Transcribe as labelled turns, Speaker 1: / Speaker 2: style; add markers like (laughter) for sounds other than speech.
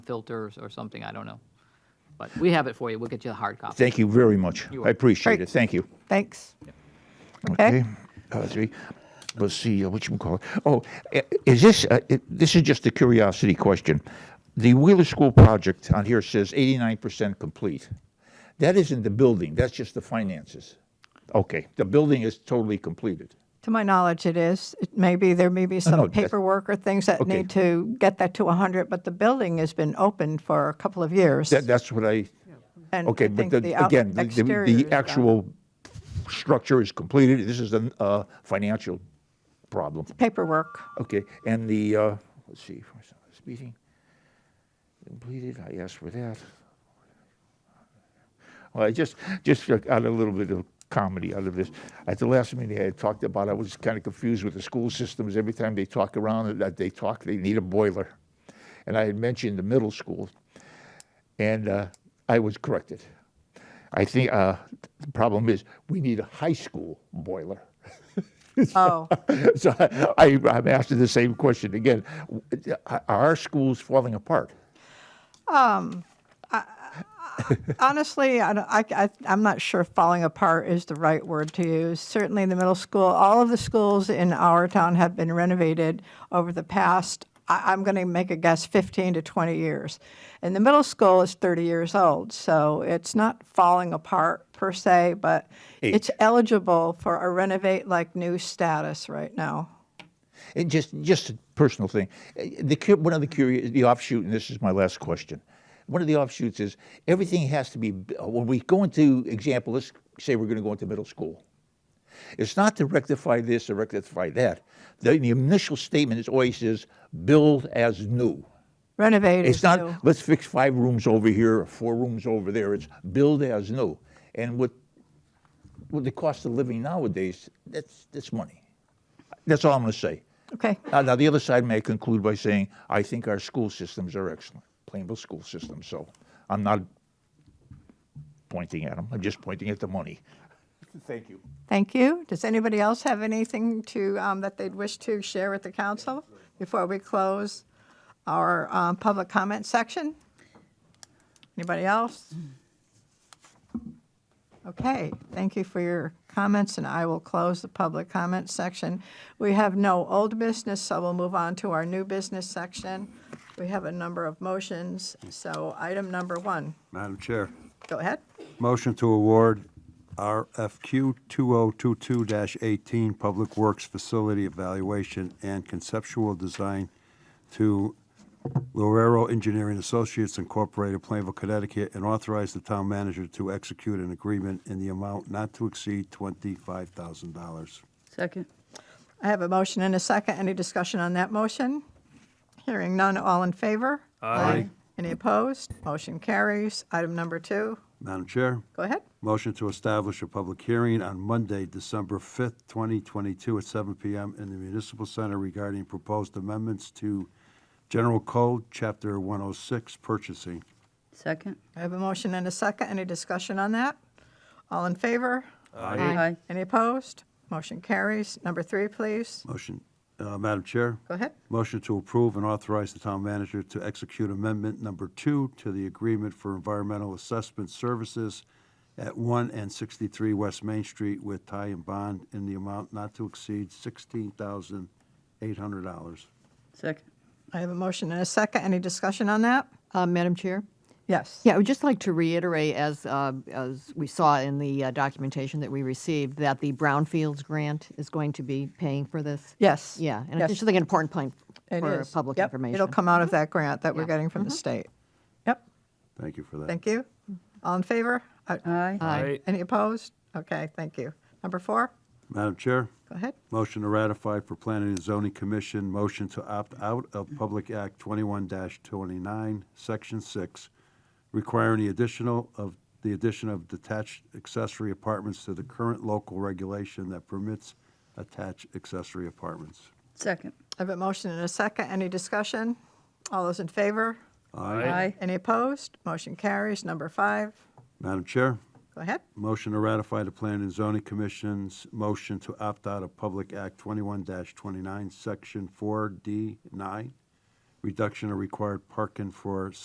Speaker 1: filters or something, I don't know. But we have it for you, we'll get you the hard copy.
Speaker 2: Thank you very much.
Speaker 1: You're
Speaker 2: I
Speaker 1: welcome.
Speaker 2: appreciate
Speaker 3: Great.
Speaker 2: it. Thank you.
Speaker 3: Thanks.
Speaker 2: Okay.
Speaker 3: Okay.
Speaker 2: Uh, three. Let's see. Uh, what you call it? Oh, i- is this? Uh, i this is just a curiosity question. The Wheeler School project on here says 89% complete. That isn't the building. That's just the finances. Okay. The building is totally completed.
Speaker 3: To my knowledge, it is. It may be, there may be
Speaker 2: no,
Speaker 3: some
Speaker 2: that's-
Speaker 3: paperwork or things that
Speaker 2: Okay.
Speaker 3: need to get that to 100, but the building has been open for a couple of years.
Speaker 2: That, that's what I.
Speaker 3: And I
Speaker 2: Okay, but
Speaker 3: think
Speaker 2: the,
Speaker 3: out-
Speaker 2: again, the, the,
Speaker 3: exterior
Speaker 2: the
Speaker 3: is done.
Speaker 2: actual structure is completed. This is a uh, financial problem.
Speaker 3: Paperwork.
Speaker 2: Okay, and the, uh, let's see, first speeding, completed, I asked for that. Well, I just, just got a little bit of comedy out of this. At the last meeting, I had talked about, I was kind of confused with the school systems. Every time they talk around, that they talk, they need a boiler. And I had mentioned the middle school, and uh, I was corrected. I think uh, the problem is, we need a high school boiler.
Speaker 3: Oh,
Speaker 2: (laughs) So I, I, I'm asking the same question again. W- Are our schools falling apart?
Speaker 3: honestly, I, don't- I, I, I'm not sure falling apart is the right word to use. Certainly, the middle school, all of the schools in our town have been renovated over the past. I, I'm going to make a guess, 15 to 20 years, and the middle school is 30 years old, so it's not falling apart per se, but it's eligible for a renovate like new status right now.
Speaker 2: And just, just a personal thing. Uh, The, cu- one of the curious, the offshoot, and this is my last question. One of the offshoots is everything has to be, b- when we go into, example, let's say we're going to go into middle school. It's not to rectify this or rectify that. The, the initial statement is always is build as new.
Speaker 3: Renovate
Speaker 2: It's
Speaker 3: is
Speaker 2: not,
Speaker 3: new.
Speaker 2: let's fix five rooms over here, or four rooms over there. It's build as new. And with, with the cost of living nowadays, that's, that's money. That's all I'm going to say.
Speaker 3: Okay.
Speaker 2: Now, now, the other side may conclude by saying, I think our school systems are excellent, Plainville school system. So I'm not pointing at them, I'm just pointing at the money. (laughs) Thank you.
Speaker 3: Thank you. Does anybody else have anything to, um, that they'd wish to share with the council before we close our um, public comment section? Anybody else? Okay, thank you for your comments, and I will close the public comment section. We have no old business, so we'll move on to our new business section. We have a number of motions, so item number one,
Speaker 4: Madam Chair,
Speaker 3: go ahead.
Speaker 4: motion to award RFQ 2022-18 Public Works Facility Evaluation and Conceptual Design to Lorero Engineering Associates Incorporated, Plainville, Connecticut, and authorize the town manager to execute an agreement in the amount not to exceed $25,000.
Speaker 5: Second.
Speaker 3: I have a motion and a second. Any discussion on that motion? Hearing none, all in favor? Aye. Any opposed? Motion carries. Item number two,
Speaker 4: Madam Chair?
Speaker 3: go ahead.
Speaker 4: Motion to establish a public hearing on Monday, December 5th, 2022, at 7 PM in the Municipal Center regarding proposed amendments to General Code, Chapter 106, Purchasing.
Speaker 5: Second.
Speaker 3: I have a motion and a second. Any discussion on that? All in favor?
Speaker 5: Aye.
Speaker 3: Any opposed? Motion carries. Number three, please.
Speaker 4: Motion, uh, Madam Chair?
Speaker 3: Go ahead.
Speaker 4: Motion to approve and authorize the town manager to execute amendment number two to the Agreement for Environmental Assessment Services at 1 and 63 West Main Street with tie and bond in the amount not to exceed $16,800.
Speaker 5: Second.
Speaker 3: I have a motion and a second. Any discussion on that?
Speaker 6: Uh, Madam Chair?
Speaker 3: Yes.
Speaker 6: Yeah, I would just like to reiterate, as, uh, as we saw in the uh, documentation that we received, that the Brownfields grant is going to be paying for this.
Speaker 3: Yes.
Speaker 6: Yeah, and
Speaker 3: Yes.
Speaker 6: it's just like an important point
Speaker 3: It
Speaker 6: for
Speaker 3: is.
Speaker 6: public
Speaker 3: Yep.
Speaker 6: information.
Speaker 3: It'll come out of that grant that we're
Speaker 6: Yeah. Mm-hmm.
Speaker 3: getting from the state. Yep,
Speaker 4: Thank you for that.
Speaker 3: thank you. All in favor? Uh,
Speaker 5: Aye.
Speaker 6: Aye.
Speaker 3: Any opposed? Okay, thank you. Number four,
Speaker 4: Madam Chair?
Speaker 3: go ahead.
Speaker 4: Motion to ratify for Planning and Zoning Commission, motion to opt out of Public Act 21-29, Section 6, requiring the additional of, the addition of detached accessory apartments to the current local regulation that permits attached accessory apartments.
Speaker 5: Second.
Speaker 3: I have a motion and a second. Any discussion? All those in favor?
Speaker 5: Aye.
Speaker 3: Any opposed? Motion carries. Number five,
Speaker 4: Madam Chair?
Speaker 3: go ahead.
Speaker 4: Motion to ratify the Planning and Zoning Commission's motion to opt out of Public Act 21-29, Section 4D9, reduction of required parking for